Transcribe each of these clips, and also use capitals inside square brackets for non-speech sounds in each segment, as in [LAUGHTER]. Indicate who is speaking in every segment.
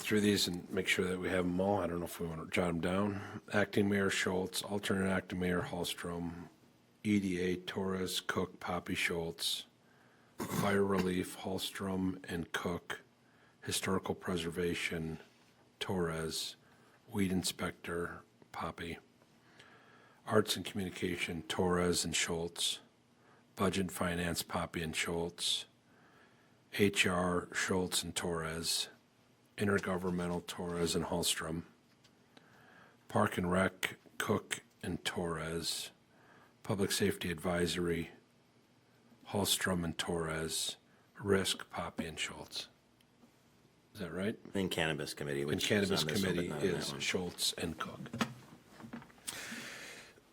Speaker 1: through these and make sure that we have them all. I don't know if we want to jot them down. Acting Mayor Schultz, alternate acting Mayor Hallstrom, EDA Torres, Cook, Poppy Schultz, Fire Relief, Hallstrom and Cook, Historical Preservation, Torres, Weed Inspector, Poppy, Arts and Communication, Torres and Schultz, Budget and Finance, Poppy and Schultz, HR, Schultz and Torres, Intergovernmental, Torres and Hallstrom, Park and Rec, Cook and Torres, Public Safety Advisory, Hallstrom and Torres, Risk, Poppy and Schultz. Is that right?
Speaker 2: And cannabis committee,
Speaker 1: And
Speaker 2: which is on
Speaker 1: Cannabis
Speaker 2: this one, but
Speaker 1: Committee
Speaker 2: not on that
Speaker 1: is
Speaker 2: one.
Speaker 1: Schultz and Cook.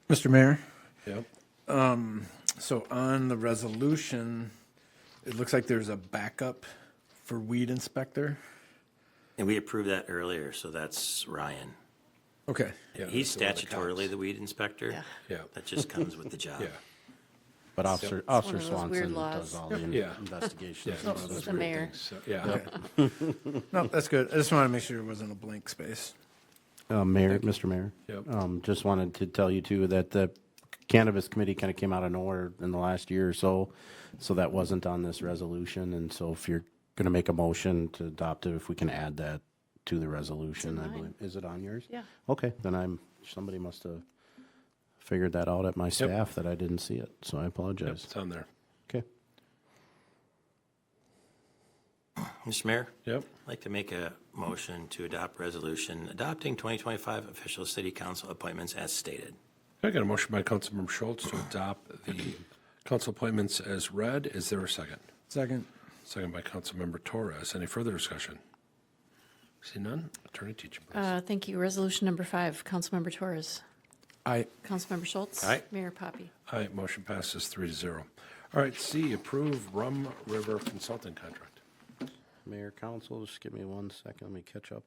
Speaker 3: Mr. Mayor,
Speaker 1: Yep.
Speaker 3: so on the resolution, it looks like there's a backup for weed inspector.
Speaker 2: And we approved that earlier, so that's Ryan.
Speaker 3: Okay,
Speaker 1: Yeah,
Speaker 2: He's
Speaker 1: that's the one
Speaker 2: statutorily the weed inspector.
Speaker 1: Yeah.
Speaker 2: That just comes
Speaker 1: [LAUGHS]
Speaker 2: with the job.
Speaker 1: Yeah,
Speaker 4: But Officer,
Speaker 5: one
Speaker 4: Officer
Speaker 5: of those weird
Speaker 4: Swanson does
Speaker 5: laws.
Speaker 4: all the in-
Speaker 1: Yeah.
Speaker 4: investigations.
Speaker 1: Yeah.
Speaker 4: and all
Speaker 5: It's
Speaker 4: those
Speaker 5: the
Speaker 4: great
Speaker 5: mayor.
Speaker 4: things.
Speaker 1: so, yeah.
Speaker 3: [LAUGHS] no, that's good. I just wanted to make sure it wasn't a blank space.
Speaker 4: Uh, Mayor, Mr. Mayor.
Speaker 1: Yep.
Speaker 4: Um, just wanted to tell you too that the cannabis committee kind of came out of nowhere in the last year or so. So that wasn't on this resolution. And so if you're going to make a motion to adopt it, if we can add that to the resolution, I
Speaker 5: mine.
Speaker 4: believe. Is it on yours?
Speaker 5: Yeah.
Speaker 4: Okay, then I'm, somebody must have figured that out at my staff that I didn't see it. So I apologize.
Speaker 1: It's on there.
Speaker 4: Okay.
Speaker 2: Mr. Mayor?
Speaker 1: Yep.
Speaker 2: I'd like to make a motion to adopt resolution adopting 2025 official city council appointments as stated.
Speaker 1: I got a motion by Councilmember Schultz to adopt the council appointments as read. Is there a second?
Speaker 3: Second.
Speaker 1: Second by Councilmember Torres. Any further discussion? See none? Attorney Teach, please.
Speaker 5: Uh, Thank you. Resolution number five, Councilmember Torres.
Speaker 3: I,
Speaker 5: Councilmember Schultz.
Speaker 2: Aye.
Speaker 5: Mayor Poppy.
Speaker 1: Aye, motion passes three to zero. All right, C, approve Rum River Consulting Contract.
Speaker 4: Mayor, council, just give me one second, let me catch up.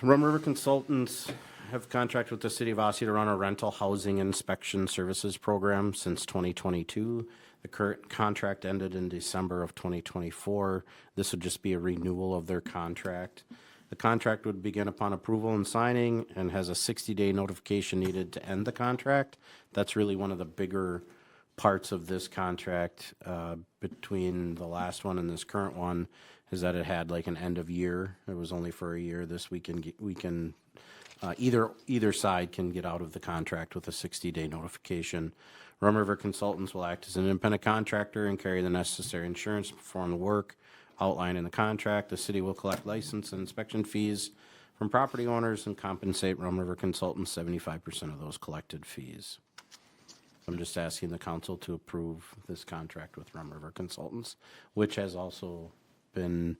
Speaker 4: Rum River Consultants have contracted with the city of Osseo to run a rental housing inspection services program since 2022. The current contract ended in December of 2024. This would just be a renewal of their contract. The contract would begin upon approval and signing and has a 60-day notification needed to end the contract. That's really one of the bigger parts of this contract uh, between the last one and this current one is that it had like an end of year. It was only for a year. This we can get, we can uh, either either side can get out of the contract with a 60 day notification. Rum River Consultants will act as an independent contractor and carry the necessary insurance to perform the work outlined in the contract. The city will collect license and inspection fees from property owners and compensate Rum River Consultants 75% of those collected fees. I'm just asking the council to approve this contract with Rum River Consultants, which has also been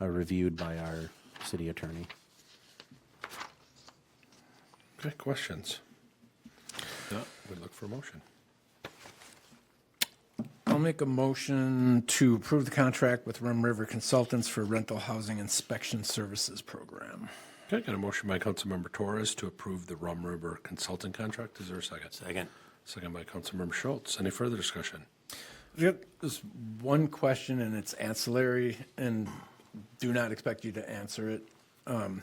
Speaker 4: uh, reviewed by our city attorney.
Speaker 1: Okay, questions? No, we look for a motion.
Speaker 3: I'll make a motion to approve the contract with Rum River Consultants for rental housing inspection services program.
Speaker 1: Okay, got a motion by Councilmember Torres to approve the Rum River Consulting Contract. Is there a second?
Speaker 2: Second.
Speaker 1: Second by Councilmember Schultz. Any further discussion?
Speaker 3: There's one question, and it's ancillary, and do not expect you to answer it. Um,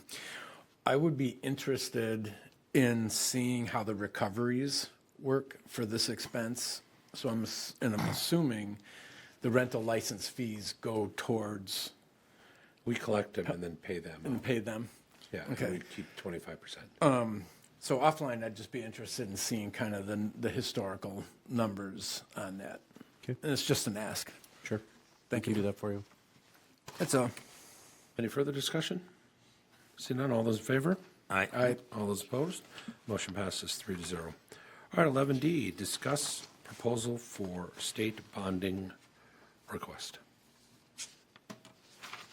Speaker 3: I would be interested in seeing how the recoveries work for this expense. So I'm, ass- and I'm assuming the rental license fees go towards,
Speaker 1: We collect them and then pay them.
Speaker 3: and pay them.
Speaker 1: Yeah, and
Speaker 3: Mm, Okay.
Speaker 1: we keep twenty-five percent.
Speaker 3: So offline, I'd just be interested in seeing kind of the, the historical numbers on that.
Speaker 4: Okay.
Speaker 3: And it's just an ask.
Speaker 4: Sure.
Speaker 3: Thank
Speaker 4: Can do
Speaker 3: you.
Speaker 4: that for you.
Speaker 3: That's all.
Speaker 1: Any further discussion? See none, all those in favor?
Speaker 2: Aye.
Speaker 3: I,
Speaker 1: All those opposed? Motion passes three to zero. All right, eleven D, discuss proposal for state bonding request.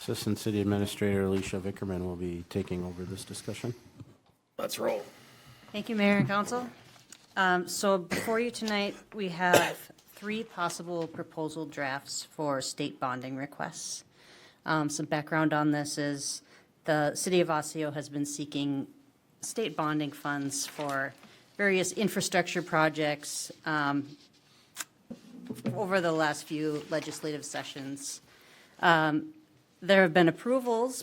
Speaker 4: Assistant City Administrator Alicia Vickerman will be taking over this discussion.
Speaker 6: Thank you, Mayor and Council. Um, So before you tonight, we have three possible proposal drafts for state bonding requests. Um, Some background on this is the city of Osseo has been seeking state bonding funds for various infrastructure projects um, over the last few legislative sessions Um, There have been approvals